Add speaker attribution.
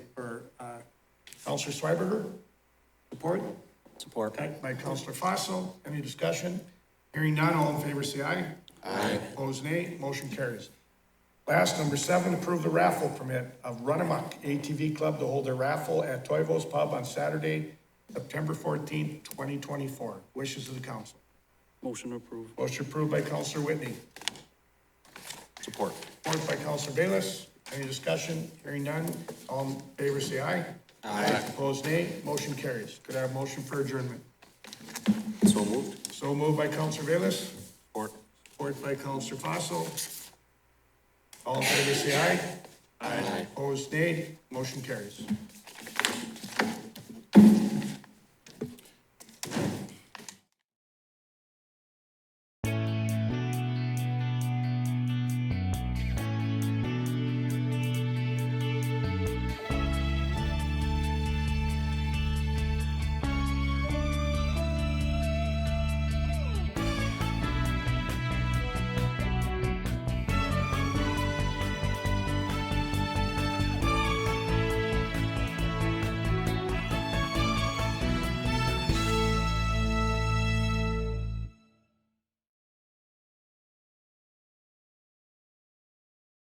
Speaker 1: uh, Counselor Schweberger, support,
Speaker 2: Support.
Speaker 1: second by Counselor Fossil. Any discussion? Hearing none, all in favor say aye. Aye. Opposed, nay. Motion carries. Last, number seven, approve the raffle permit of Run Amok ATV Club to hold their raffle at Toivo's Pub on Saturday, September fourteenth, twenty twenty-four. Wishes of the council.
Speaker 2: Motion approved.
Speaker 1: Motion approved by Counselor Whitney.
Speaker 2: Support.
Speaker 1: Support by Counselor Bayless. Any discussion? Hearing none. All in favor, say aye. Aye. Opposed, nay. Motion carries. Could I have a motion for adjournment?
Speaker 2: So moved.
Speaker 1: So moved by Counselor Bayless,
Speaker 2: Support.
Speaker 1: support by Counselor Fossil. All in favor, say aye. Aye. Opposed, nay. Motion carries.